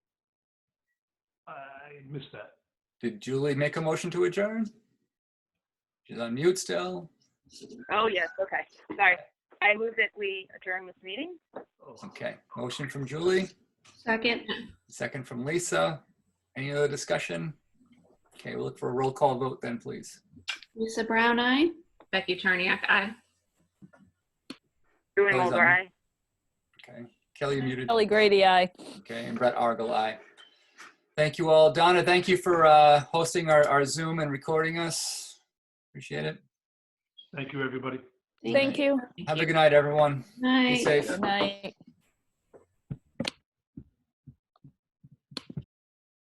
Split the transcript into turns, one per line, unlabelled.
I missed that.
Did Julie make a motion to adjourn? She's on mute still.
Oh, yes, okay, sorry. I move that we adjourn this meeting.
Oh.
Okay, motion from Julie,
Second,
second from Lisa. Any other discussion? Okay, we'll look for a roll call vote then, please.
Lisa Brown, aye.
Becky Charniak, aye.
Julie
Close on.
Mulder, aye.
Okay, Kelly, you muted.
Kelly Grady, aye.
Okay, and Brett Argel, aye. Thank you all. Donna, thank you for uh, hosting our our Zoom and recording us. Appreciate it.
Thank you, everybody.
Thank you.
Have a good night, everyone.
Night.
Be safe.
Good night.